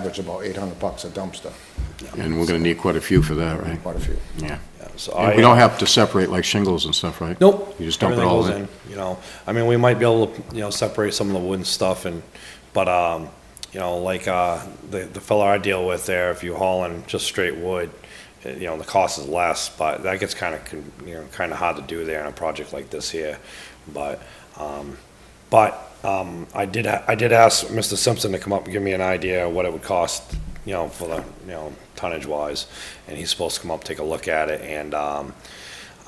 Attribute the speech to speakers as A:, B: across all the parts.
A: average about 800 bucks a dumpster,
B: And we're going to need quite a few for that, right?
A: quite a few.
B: Yeah.
C: So
B: And
C: I-
B: we don't have to separate like shingles and stuff, right?
C: Nope.
B: You just dump it
C: Everything
B: all
C: goes
B: in.
C: You know, I mean, we might be able to, you know, separate some of the wooden stuff and, but, um, you know, like, uh, the, the fella I deal with there, if you haul in just straight wood, eh, you know, the cost is less, but that gets kind of, you know, kind of hard to do there in a project like this here. But, um, but, um, I did, a- I did ask Mr. Simpson to come up and give me an idea of what it would cost, you know, for the, you know, tonnage wise. And he's supposed to come up, take a look at it and, um,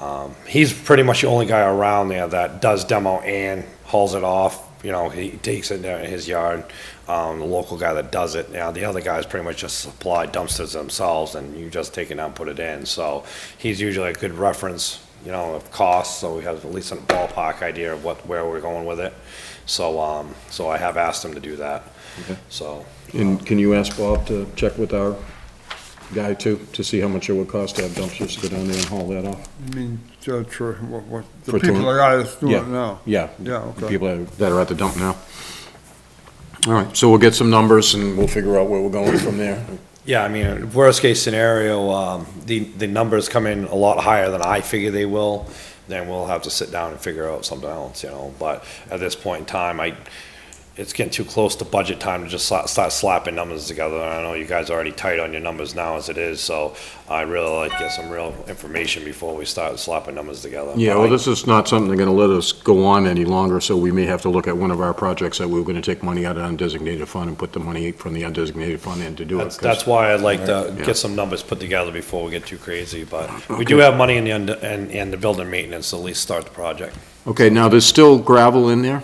C: um, he's pretty much the only guy around there that does demo and hauls it off. You know, he takes it there in his yard. Um, the local guy that does it. Now the other guys pretty much just supply dumpsters themselves, and you just take it out, and put it in. So he's usually a good reference, you know, of costs. So we have at least a ballpark idea of what where we're going with it. So um, so I have asked him to do that. So
D: And can you ask Bob to check with our guy too, to see how much it would cost to have dumpsters go down there and haul that off?
E: I mean, so true, what, what,
D: For
E: the
D: tour-
E: people that got us doing
D: Yeah,
E: it now.
D: Yeah.
E: Yeah, okay.
D: People that- that are at the dump now. All right, so we'll get some numbers and we'll figure out where we're going from there.
C: Yeah, I mean, worst case scenario, um, the, the numbers come in a lot higher than I figure they will, then we'll have to sit down and figure out something else, you know, but at this point in time, I, it's getting too close to budget time to just sla- start slapping numbers together, and I know you guys are already tight on your numbers now as it is, so I really like to get some real information before we start slapping numbers together.
D: Yeah, well, this is not something they're gonna let us go on any longer, so we may have to look at one of our projects that we were gonna take money out of undesignated fund and put the money from the undesignated fund in to do it.
C: That's,
D: 'cause-
C: that's why I'd like to
D: Yeah.
C: get some numbers put together before we get too crazy, but we do have money in the, und- in, in the building maintenance, to at least start the project.
D: Okay, now, there's still gravel in there,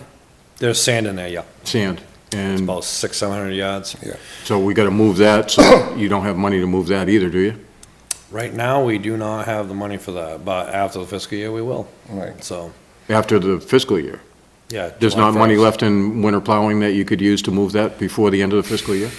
C: There's sand in there, yeah.
D: sand, and
C: About six, seven hundred yards.
D: so we gotta move that, so you don't have money to move that either, do you?
C: Right now, we do not have the money for that, but after the fiscal year, we will.
A: Right.
C: So,
D: After the fiscal year?
C: yeah.
D: There's
C: July
D: not money
C: 1st.
D: left in winter plowing that you could use to move that before the end of the fiscal year?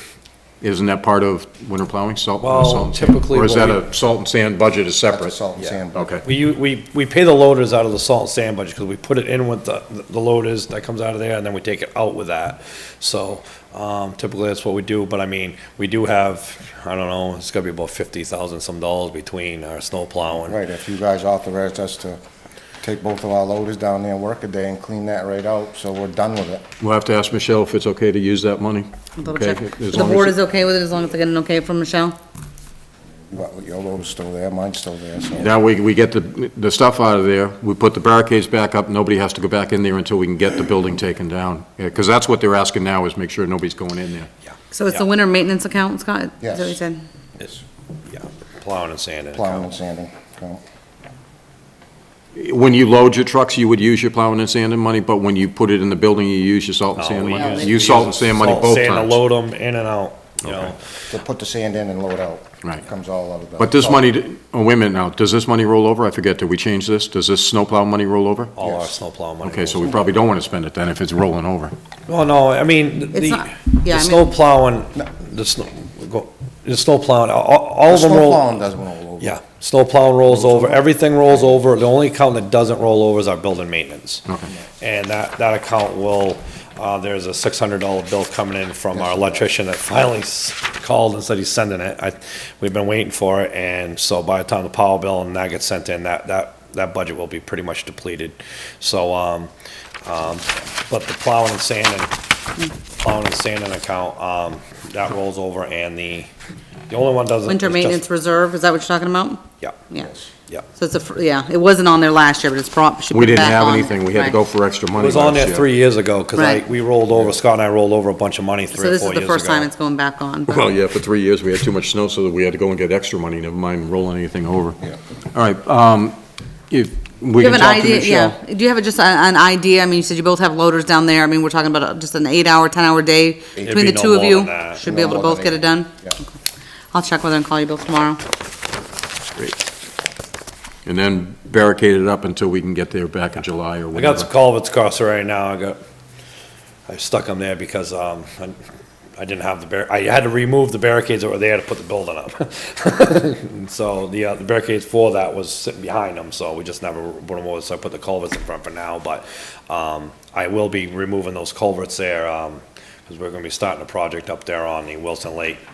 D: Isn't that part of winter plowing, salt? uh,
C: Well,
D: salt and sand?
C: typically
D: Or is
C: what
D: that
C: we-
D: a salt and sand budget is
A: That's a
D: separate?
A: salt and
C: Yeah.
A: sand.
D: Okay,
C: We, u- we, we pay the loaders out of the salt and sand budget, because we put it in with the, the loaders that comes out of there, and then we take it out with that. So, um, typically, that's what we do, but I mean, we do have, I don't know, it's gotta be about fifty thousand some dollars between our snow plowing.
A: Right, if you guys authorized us to take both of our loaders down there, and work a day and clean that right out, so we're done with it.
D: we'll have to ask Michelle if it's okay to use that money.
F: I'll double
D: Okay,
F: check.
D: as
F: The
D: long as
F: board
D: it-
F: is okay with it as long as I get an okay from Michelle?
A: But your loader's still there, mine's still there, so.
D: Now, we, we get the, the stuff out of there, we put the barricades back up, nobody has to go back in there until we can get the building taken down. Because that's what they're asking now, is make sure nobody's going in there.
F: So it's the
C: Yeah.
F: winter maintenance account, Scott? Is that what you
A: Yes.
F: said?
C: It's- Yeah, plowing and sanding.
A: Plowing and sanding, so.
D: When you load your trucks, you would use your plowing and sanding money, but when you put it in the building, you use your salt and
C: No,
D: sand
C: we
D: money?
C: use-
D: You
C: we
D: salt and
C: use
D: sand money
C: salt
D: both
C: sand to
D: times.
C: Load them in and out, you know.
A: To put the sand in and load out.
D: Right.
A: Comes all out of the.
D: But this money, oh, wait a minute now, does this money roll over? I forget, did we change this? Does this snowplow money roll over?
C: all our
A: Yes.
C: snowplow money.
D: Okay, so
C: goes.
D: we probably don't want to spend it then if it's rolling over.
C: Well, no, I mean,
F: It's
C: the,
F: not-
C: the
F: yeah, I
C: snow
F: mean-
C: plowing, the snow, go- the snow plowing, all, all
A: The
C: of them
A: snow plowing
C: roll.
A: doesn't roll over.
C: Yeah, snow plowing rolls over, everything rolls over, the only account that doesn't roll over is our building maintenance.
D: Okay.
C: And that, that account will, uh, there's a six hundred dollar bill coming in from our electrician that finally s- called and said he's sending it. I, we've been waiting for it, and so by the time the power bill and that gets sent in, that, that, that budget will be pretty much depleted. So, um, um, but the plowing and sanding, plowing and sanding account, um, that rolls over, and the, the only one doesn't.
F: Winter
C: is just-
F: maintenance reserve, is that what you're talking about?
C: Yeah.
F: Yeah.
C: Yeah.
F: So it's a, fr- yeah, it wasn't on there last year, but it's probably, should be
D: We didn't
F: back
D: have
F: on.
D: anything, we had to
F: Right.
D: go for extra
C: It
D: money
C: was on
D: last
C: there
D: year.
C: three years ago, because I,
F: Right.
C: we rolled over, Scott and I rolled over a bunch of money
F: So
C: three or
F: this
C: four
F: is the
C: years ago.
F: first time it's going back on. but-
D: Well, yeah, for three years, we had too much snow, so that we had to go and get extra money, never mind rolling anything over.
A: Yeah.
D: All right, um, if, we
F: Do
D: can
F: you have an
D: talk to
F: idea?
D: Michelle.
F: Yeah. Do you have a- just a- an idea? I mean, you said you both have loaders down there. I mean, we're talking about a- just an eight-hour, 10-hour day between
C: be
F: the
C: no
F: two of
C: more
F: you.
C: than that.
F: Should be
A: No
F: able to
A: more than
F: both get it
A: eight.
F: done?
A: Yeah.
F: Okay. I'll check with her and call you both tomorrow.
D: And then barricade it up until we can get there back in July or
C: I
D: whatever.
C: got some culverts across right now, I got, I stuck them there because, um, I- I didn't have the bar, I had to remove the barricades that were there to put the building up. And So the, uh, the barricades for that was sitting behind them, so we just never put them over, so I put the culverts in front for now, but, um, I will be removing those culverts there, um, because we're gonna be starting a project up there on the Wilson Lake